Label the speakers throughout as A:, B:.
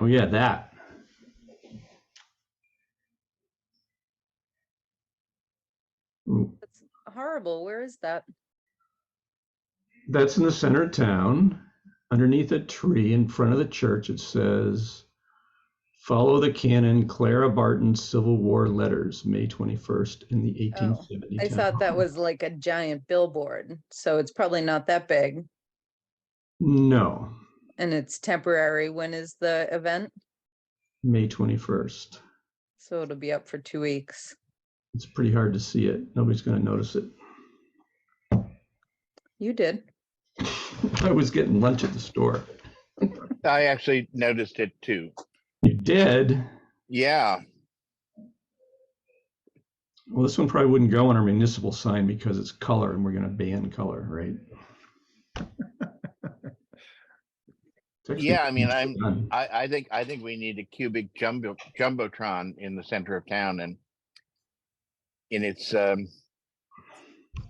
A: Oh, yeah, that. Mm,
B: That's horrible. Where is that?
A: That's in the center of town, underneath a tree in front of the church. It says, "Follow the canon, Clara Barton Civil War letters, May 21st in the 1870."
B: Oh, I thought that was like a giant billboard, so it's probably not that big
A: No,
B: and it's temporary. When is the event?
A: May 21st.
B: So it'll be up for two weeks.
A: It's pretty hard to see it. Nobody's going to notice it.
B: You did.
A: I was getting lunch at the store.
C: I actually noticed it too.
A: You did?
C: Yeah,
A: Well, this one probably wouldn't go on our municipal sign because it's color and we're going to ban color, right? It's actually
C: yeah. I mean, I'm.
A: done.
C: I, I think I think we need a cubic jumbo jumbotron in the center of town, and in its um,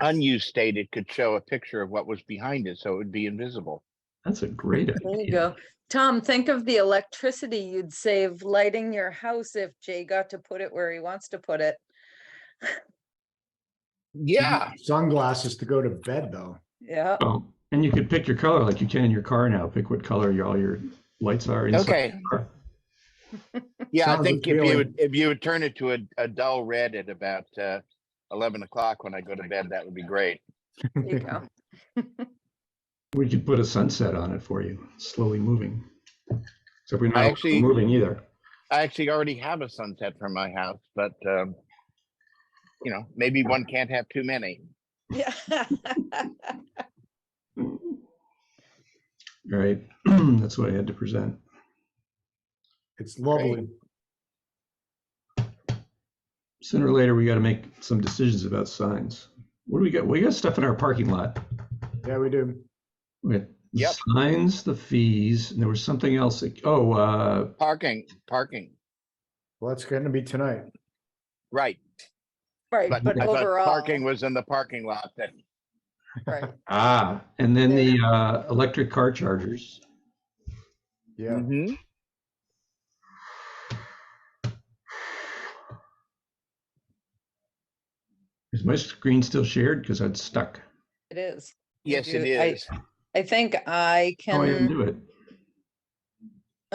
C: unused state, it could show a picture of what was behind it, so it would be invisible.
A: That's a great
B: There you
A: idea.
B: go. Tom, think of the electricity you'd save lighting your house if Jay got to put it where he wants to put it.
D: You
C: Yeah,
D: need Sunglasses to go to bed, though.
B: Yeah.
A: Oh, And you could pick your color like you can in your car now. Pick what color your, all your lights are inside.
C: Okay.
A: the car.
C: yeah. I
D: Sounds
C: think if you
D: appealing.
C: would if you would turn it to a, a dull red at about uh, eleven o'clock when I go to bed, that would be great.
B: There you go.
A: We could put a sunset on it for you, slowly moving. Except we're
C: I
A: not
C: actually-
A: moving either.
C: I actually already have a sunset from my house, but um, you know, maybe one can't have too many.
B: Yeah.
A: All right. That's what I had to present.
D: It's lovely.
A: sooner or later we got to make some decisions about signs. What do we got? We got stuff in our parking lot.
D: Yeah, we do.
A: We got the
C: Yep.
A: signs, the fees, and there was something else. that- Oh, uh,
C: Parking, parking,
D: Well, that's going to be tonight.
C: right.
B: Right,
C: But
B: but
C: I thought
B: overall.
C: parking was in the parking lot then.
B: right.
A: ah, and then the uh, electric car chargers.
D: Yeah.
C: Mhm.
A: Is my screen still shared? Because I'd stuck.
B: It is. You
C: Yes, it
B: do- I-
C: is.
B: I think I
A: Oh, I didn't
B: can,
A: do it.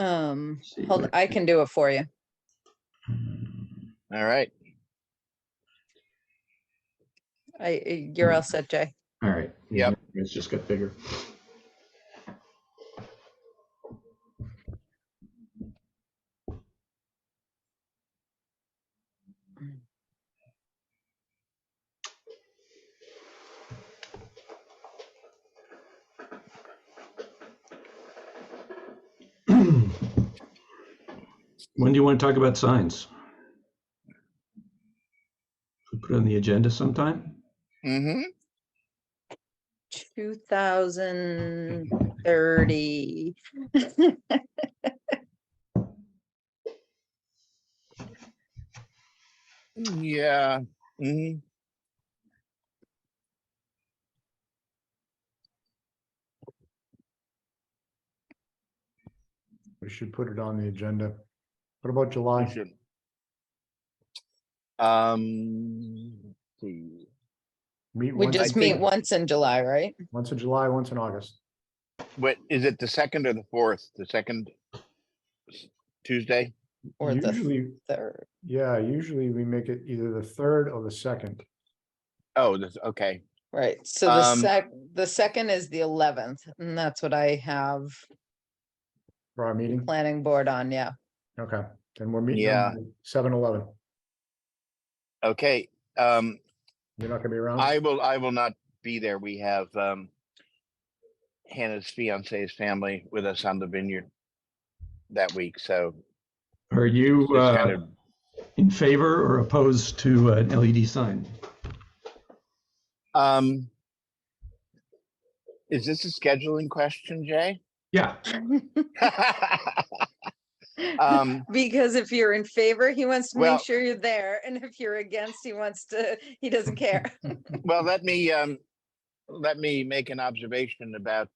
B: um,
A: See if
B: hold, I can do it for you.
C: All right.
B: I, I- you're all set, Jay.
A: All right. Yeah,
C: Yep.
A: It's just got bigger. When do you want to talk about signs? We Put it on the agenda sometime?
C: hmm
B: Two thousand thirty.
C: Yeah. hmm
D: We should put it on the agenda. What about July?
C: Um, let's see.
D: Meet
B: We
D: once-
B: just
C: I
B: meet
C: think-
B: once in July, right?
D: Once in July, once in August.
C: What, is it the second or the fourth? The second Tuesday?
B: Or the
D: Usually,
B: third.
D: yeah, usually we make it either the third or the second.
C: Oh, this, okay.
B: Right, so the
C: Um,
B: sec, the second is the eleventh, and that's what I have
D: For our meeting?
B: planning board on, yeah.
D: Okay, then we're meeting.
C: Yeah.
D: Seven eleven.
C: Okay. Um,
D: You're not gonna be around?
C: I will, I will not be there. We have, um, Hannah's fiance's family with us on the vineyard that week, so.
A: Are you
C: it's kind
A: uh,
C: of-
A: in favor or opposed to an LED sign?
C: Um, is this a scheduling question, Jay?
A: Yeah,
C: um,
B: Because if you're in favor, he wants to
C: Well-
B: make sure you're there, and if you're against, he wants to, he doesn't care.
C: well, let me um, let me make an observation about